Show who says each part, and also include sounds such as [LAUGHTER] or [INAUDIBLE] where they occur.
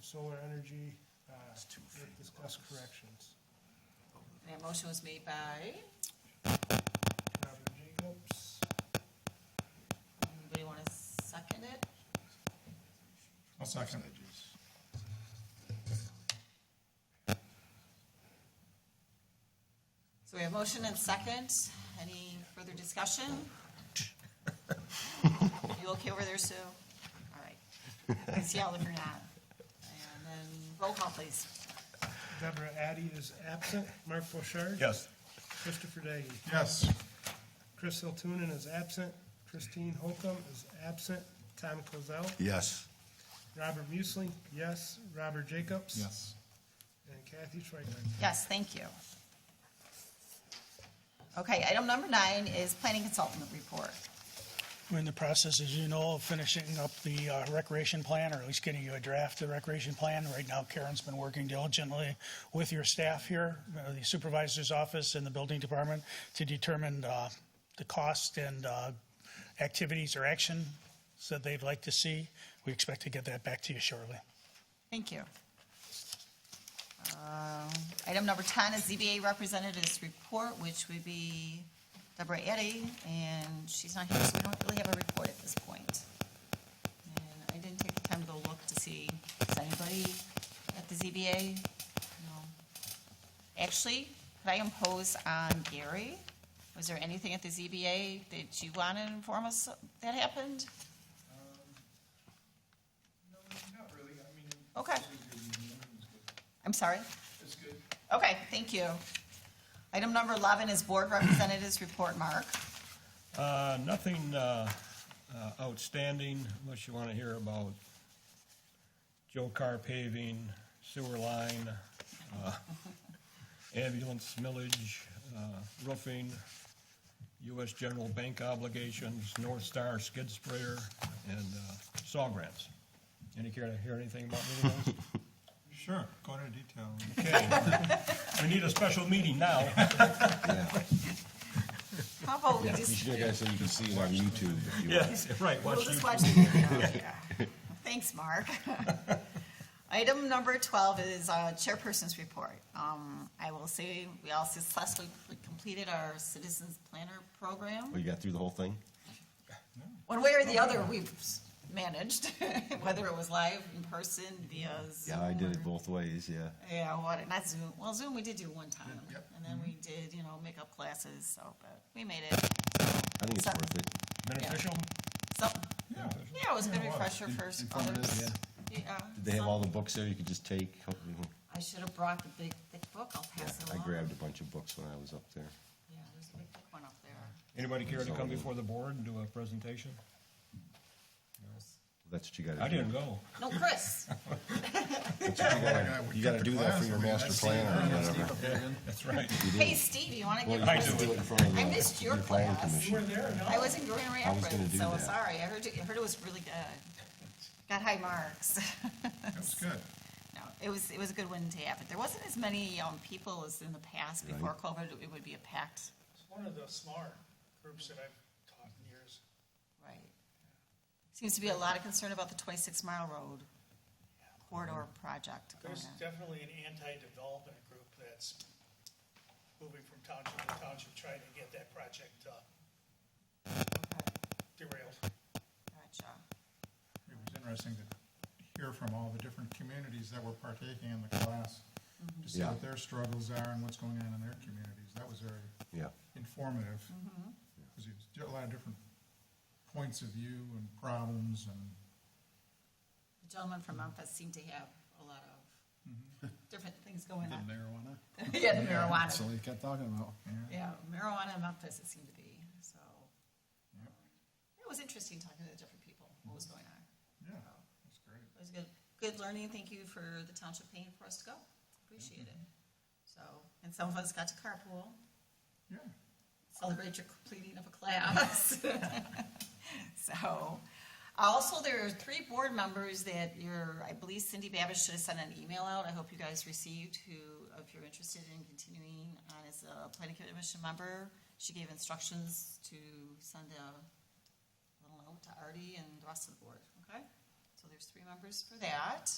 Speaker 1: solar energy, uh, with discussed corrections.
Speaker 2: That motion was made by,
Speaker 1: Robert Jacobs,
Speaker 2: anybody want to second it?
Speaker 3: I'll second.
Speaker 2: So we have motion and second. Any further discussion? You okay over there, Sue? All right. I can see all of you not. And then roll call, please.
Speaker 1: Deborah Addy is absent, Mark Bouchard.
Speaker 3: Yes.
Speaker 1: Christopher Daggy.
Speaker 3: Yes.
Speaker 1: Chris Hiltunen is absent, Christine Holcomb is absent, Tom Kozel,
Speaker 4: Yes.
Speaker 1: Robert Muesling, yes, Robert Jacobs.
Speaker 3: Yes.
Speaker 1: And Kathy Schweikart.
Speaker 2: Yes, thank you. Okay, item number nine is planning consultant report.
Speaker 5: We're in the process, as you know, of finishing up the uh, recreation plan, or at least getting you a draft of the recreation plan. Right now Karen's been working diligently with your staff here, uh, the supervisor's office and the building department, to determine uh, the cost and uh, activities or actions that they'd like to see. We expect to get that back to you shortly.
Speaker 2: Thank you. Um, Item number 10 is ZBA representatives report, which would be Deborah Eddy, and she's not here, so we don't really have a report at this point. And I didn't take the time to go look to see, is anybody at the ZBA? No. Actually, could I impose on Gary? Was there anything at the ZBA that you want to inform us that happened?
Speaker 6: No, not really, I mean.
Speaker 2: Okay.
Speaker 6: it's a good meeting,
Speaker 2: I'm sorry?
Speaker 6: It's good.
Speaker 2: Okay, thank you. Item number 11 is Board Representatives Report, Mark.
Speaker 7: Uh, Nothing uh, uh, outstanding unless you want to hear about Joe Carr paving, sewer line, uh, [LAUGHS] ambulance millage, uh, roofing, U.S. general bank obligations, North Star skid sprayer, and uh, saw grants. Any care to hear anything about any of those?
Speaker 3: [LAUGHS] Sure, go into detail.
Speaker 7: Okay. [LAUGHS] We need a special meeting now.
Speaker 2: How about we
Speaker 4: You
Speaker 2: just,
Speaker 4: should do that so you can see it on YouTube if you want.
Speaker 7: Yes, right,
Speaker 2: we'll
Speaker 7: watch
Speaker 2: just
Speaker 7: you.
Speaker 2: watch the
Speaker 4: [LAUGHS]
Speaker 2: video. yeah. Thanks, Mark. [LAUGHS] Item number 12 is uh, Chairperson's Report. Um, I will say, we all successfully completed our Citizens Planner Program.
Speaker 4: We got through the whole thing?
Speaker 2: One way or the other, we've managed, [LAUGHS] whether it was live, in person, via Zoom.
Speaker 4: Yeah, I did
Speaker 2: or-
Speaker 4: it both ways, yeah.
Speaker 2: Yeah, what, not Zoom, well, Zoom we did do one time, and then we
Speaker 4: Mm-hmm.
Speaker 2: did, you know, makeup classes, so, but we made it.
Speaker 4: I think it's
Speaker 2: So-
Speaker 4: worth it.
Speaker 3: Beneficial?
Speaker 2: So,
Speaker 3: Yeah.
Speaker 2: yeah, it was a good refresher for s- others. Yeah.
Speaker 4: Did they have all
Speaker 2: so-
Speaker 4: the books there you could just take? Hopefully-
Speaker 2: I should have brought the big thick book, I'll pass it
Speaker 4: I
Speaker 2: along.
Speaker 4: grabbed a bunch of books when I was up there.
Speaker 2: Yeah, there's a big thick one up there.
Speaker 7: Anybody care to come before the board and do a presentation?
Speaker 4: That's what you gotta do.
Speaker 7: I didn't go.
Speaker 2: No, Chris,
Speaker 4: You gotta do that for your master plan or whatever.
Speaker 7: That's right.
Speaker 2: hey, Steve, you wanna
Speaker 4: Well,
Speaker 2: give
Speaker 4: you
Speaker 7: I
Speaker 2: Chris?
Speaker 4: can
Speaker 7: do
Speaker 4: do it in front of
Speaker 2: I
Speaker 4: the.
Speaker 2: missed your
Speaker 4: your planning
Speaker 2: class.
Speaker 4: commission.
Speaker 2: I was in Grand
Speaker 4: I was gonna
Speaker 2: Rapids,
Speaker 4: do
Speaker 2: so
Speaker 4: that.
Speaker 2: sorry, I heard, you- I heard it was really good. Got high marks. [LAUGHS]
Speaker 3: That's good.
Speaker 2: No, it was, it was a good one to have, but there wasn't as many, um, people as in the past before COVID, it would be a packed,
Speaker 1: It's one of the smaller groups that I've taught in years.
Speaker 2: right? Seems to be a lot of concern about the twenty-six mile road corridor project going
Speaker 8: There's
Speaker 2: on.
Speaker 8: definitely an anti-development group that's moving from township to township, trying to get that project uh,
Speaker 2: Okay,
Speaker 8: derailed.
Speaker 2: Gotcha.
Speaker 3: It was interesting to hear from all the different communities that were partaking in the class, to see
Speaker 4: Yeah.
Speaker 3: what their struggles are and what's going on in their communities. That was very
Speaker 4: Yeah.
Speaker 3: informative. Because you a lot of different points of view and problems and
Speaker 2: The gentleman from Memphis seemed to have a lot of [LAUGHS] different things going on.
Speaker 9: marijuana.
Speaker 2: [LAUGHS] Yeah, the
Speaker 9: So
Speaker 2: marijuana,
Speaker 9: they kept talking about.
Speaker 2: yeah, marijuana in Memphis, it seemed to be, so. It was interesting talking to the different people, what was going on.
Speaker 3: Yeah, that's great.
Speaker 2: It was good, good learning. Thank you for the township paying for us to go. Appreciate it. So, and some of us got to carpool,
Speaker 3: Yeah,
Speaker 2: celebrate your completing of a class. So, also, there are three board members that your, I believe Cindy Babish should have sent an email out. I hope you guys received who, if you're interested in continuing on as a planning commission member, she gave instructions to send a little note to Artie and the rest of the board, okay? So there's three members for that.